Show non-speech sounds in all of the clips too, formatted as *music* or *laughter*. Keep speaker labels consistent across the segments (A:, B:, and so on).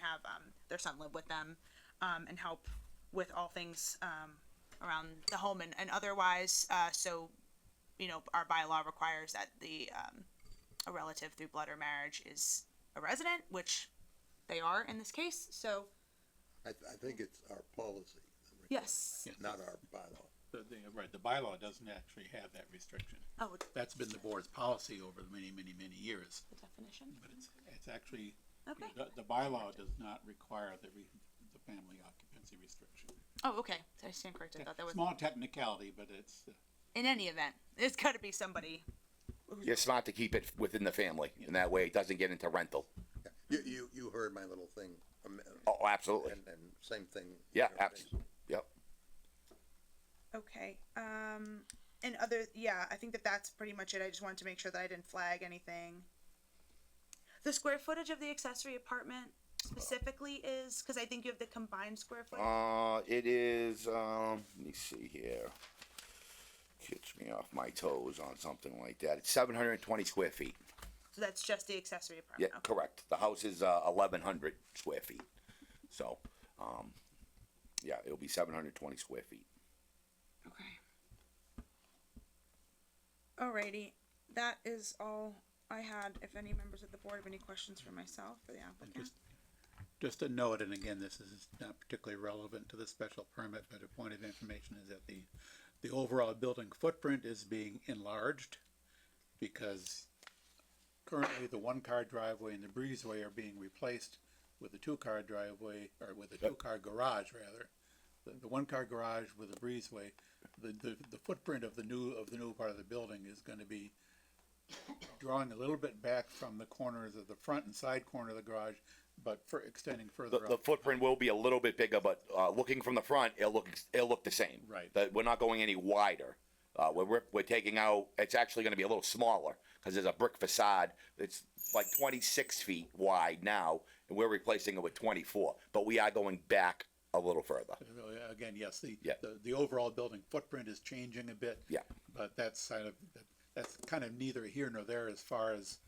A: have um, their son live with them um, and help with all things um, around the home and, and otherwise. Uh, so, you know, our bylaw requires that the um, a relative through blood or marriage is a resident, which they are in this case. So,
B: I, th- I think it's our policy.
A: yes.
C: Yes.
B: Not our bylaw.
C: The, the- right, the bylaw doesn't actually have that restriction.
A: Oh, it's
C: That's been the board's policy over many, many, many years,
A: the definition.
C: but it's, it's actually,
A: Okay.
C: the, the bylaw does not require the re, the family occupancy restriction.
A: Oh, okay. I stand corrected. I thought that was
C: Small technicality, but it's, uh,
A: in any event. It's got to be somebody.
D: You're smart to keep it within the family, and that way it doesn't get into rental.
B: You, you, you heard my little thing. um,
D: Oh, absolutely.
B: And, and same thing.
D: Yeah,
B: you know,
D: abs- yep.
A: Okay. Um, and other, yeah, I think that that's pretty much it. I just wanted to make sure that I didn't flag anything. The square footage of the accessory apartment specifically is because I think you have the combined square footage.
D: Uh, it is, um, let me see here. Catch me off my toes on something like that. It's seven hundred and twenty square feet.
A: so that's just the accessory
D: Yeah,
A: apartment. okay.
D: correct. The house is, uh, eleven hundred square feet. So, um, yeah, it'll be seven hundred and twenty square feet.
A: Okay. Alrighty, that is all I had. If any members of the board have any questions for myself or the
C: and
A: applicant.
C: just, just a note, and again, this is not particularly relevant to the special permit, but a point of information is that the, the overall building footprint is being enlarged because currently the one-car driveway and the breezeway are being replaced with a two-car driveway, or with a two-car garage, rather. The, the one-car garage with a breezeway, the, the, the footprint of the new, of the new part of the building is gonna be drawing a little bit back from the corners of the front and side corner of the garage, but for extending
D: The,
C: further
D: the
C: up.
D: footprint will be a little bit bigger, but, uh, looking from the front, it'll look, it'll look the same.
C: Right.
D: That, we're not going any wider. Uh, we're, we're, we're taking out, it's actually gonna be a little smaller, cause there's a brick facade. It's like twenty-six feet wide now, and we're replacing it with twenty-four, but we are going back a little further.
C: Uh, Again, yes, the,
D: Yeah.
C: the, the overall building footprint is changing a bit.
D: Yeah.
C: But that's kind of, that's kind of neither here nor there as far as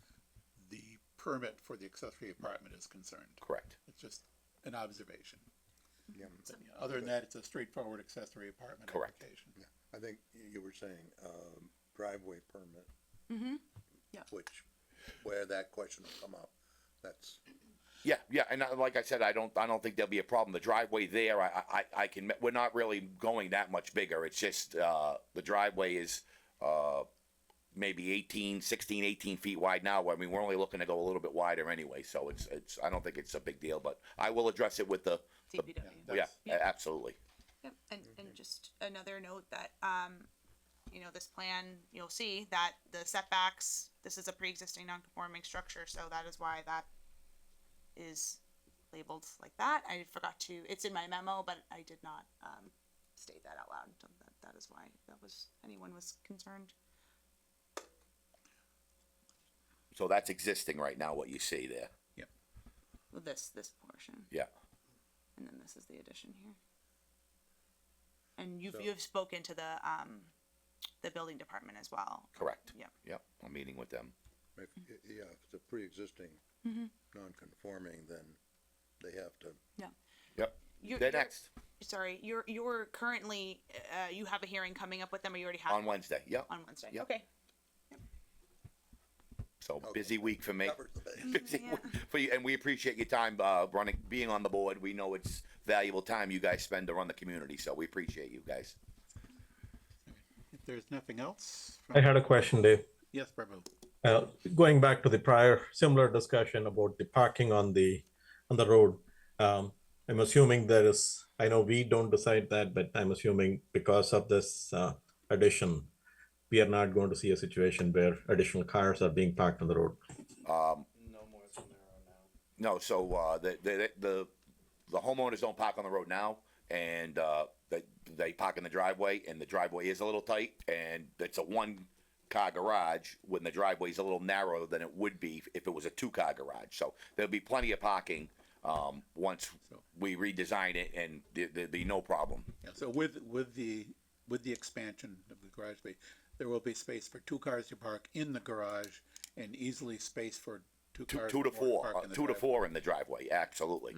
C: the permit for the accessory apartment is concerned.
D: Correct.
C: It's just an observation.
B: Yeah.
C: But, yeah, Other than that, it's a straightforward accessory apartment
D: Correct.
C: application.
B: I think you- you were saying, um, driveway permit.
A: Mm-hmm. Yeah.
B: Which, where that question will come up, that's,
D: Yeah, yeah, and I- like I said, I don't, I don't think there'll be a problem. The driveway there, I, I, I can, we're not really going that much bigger. It's just, uh, the driveway is, uh, maybe 18, 16, 18 feet wide now. I mean, we're only looking to go a little bit wider anyway, so it's, it's, I don't think it's a big deal, but I will address it with the, the-
A: DPW.
D: yeah,
C: That's-
D: a- absolutely.
A: Yep, and, and just another note that, um, you know, this plan, you'll see that the setbacks, this is a pre-existing non-conforming structure, so that is why that is labeled like that. I forgot to, it's in my memo, but I did not, um, state that out loud, so that, that is why that was, anyone was concerned.
D: So that's existing right now, what you see there.
A: with This, this portion,
D: Yeah,
A: and then this is the addition here. And you've,
B: So-
A: you've spoken to the, um, the building department as well.
D: correct.
A: Yep.
D: Yep, I'm meeting with them.
B: if, yeah, if it's a pre-existing non-conforming, then they have to,
D: Yep,
A: You're-
D: they're
A: you're-
D: next,
A: sorry, you're you're currently uh, you have a hearing coming up with them, or you already have
D: on
A: one
D: Wednesday, yep.
A: on Wednesday.
D: Yep.
A: Okay.
D: So
B: Okay.
D: busy week for me.
B: covers the base.
D: *laughs* busy
A: Yeah.
D: for you, and we appreciate your time, uh, running, being on the board. We know it's valuable time you guys spend to run the community, so we appreciate you guys.
C: If there's nothing else. from-
E: I had a question, Dave.
C: Yes, Prabhu.
E: Uh, going back to the prior similar discussion about the parking on the on the road. Um, I'm assuming there is. I know we don't decide that, but I'm assuming because of this uh, addition, we are not going to see a situation where additional cars are being parked on the road.
D: Um,
F: No more than there are now.
D: no, so, uh, the, the, the, the homeowners don't park on the road now, and, uh, they, they park in the driveway, and the driveway is a little tight, and it's a one-car garage, when the driveway's a little narrower than it would be if it was a two-car garage, so there'll be plenty of parking, um, once
C: So-
D: we redesign it, and there, there'd be no problem.
C: Yeah, so with, with the, with the expansion of the garage bay, there will be space for two cars to park in the garage and easily space for two
D: Two,
C: cars.
D: two to
C: more
D: four,
C: park
D: uh,
C: in the
D: two to
C: driveway.
D: four in the driveway, absolutely.